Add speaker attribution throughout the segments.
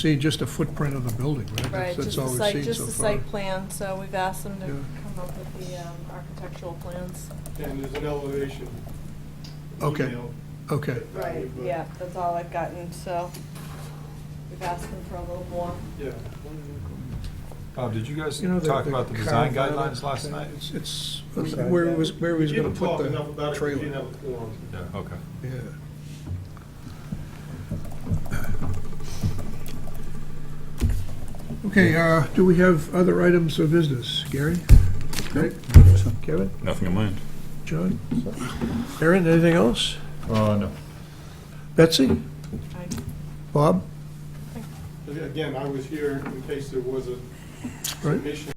Speaker 1: see just a footprint of the building, right?
Speaker 2: Right,
Speaker 1: That's-
Speaker 2: just
Speaker 1: That's
Speaker 2: the
Speaker 1: all we've
Speaker 2: site,
Speaker 1: seen
Speaker 2: just
Speaker 1: so
Speaker 2: the
Speaker 1: far.
Speaker 2: site plan, so we've asked them to
Speaker 1: Yeah.
Speaker 2: come up with the um, architectural plans.
Speaker 3: And there's an elevation.
Speaker 1: Okay.
Speaker 3: email.
Speaker 1: Okay,
Speaker 2: Right, yeah, that's all I've gotten, so we've asked them for a little more.
Speaker 3: Yeah.
Speaker 4: Bob, Oh, did you guys
Speaker 1: you know, the.
Speaker 4: talk about the design
Speaker 1: carve out,
Speaker 4: guidelines last
Speaker 1: uh,
Speaker 4: night?
Speaker 1: It's, it's,
Speaker 5: What's that?
Speaker 1: where he was, where he was
Speaker 3: You
Speaker 1: gonna
Speaker 3: didn't
Speaker 1: put
Speaker 3: talk enough about
Speaker 1: the
Speaker 3: it, 'cause you
Speaker 1: trailer.
Speaker 3: didn't have a forum.
Speaker 4: Yeah, okay.
Speaker 1: Yeah. Okay, uh, do we have other items of business? Gary? Greg? Kevin?
Speaker 6: Nothing in mind.
Speaker 1: John? Aaron, anything else?
Speaker 5: Oh, no.
Speaker 1: Betsy?
Speaker 2: I-
Speaker 1: Bob?
Speaker 3: Again, I was here in case there was a
Speaker 1: Right?
Speaker 3: submission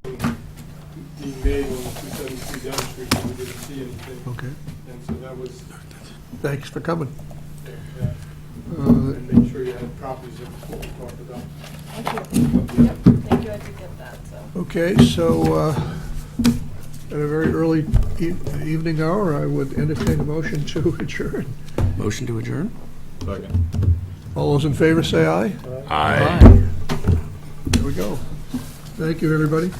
Speaker 3: being made on the 273 Down Street, and we didn't see anything.
Speaker 1: Okay,
Speaker 3: And so that was,
Speaker 1: thanks for coming.
Speaker 3: yeah,
Speaker 1: Uh,
Speaker 3: and make sure you had copies of what we talked about.
Speaker 2: Thank you. Yep, thank you, I did get that, so.
Speaker 1: Okay, so uh, at a very early e- evening hour, I would entertain a motion to adjourn.
Speaker 6: Motion to adjourn?
Speaker 5: Second.
Speaker 1: All those in favor, say aye.
Speaker 6: Aye.
Speaker 1: There we go. Thank you, everybody.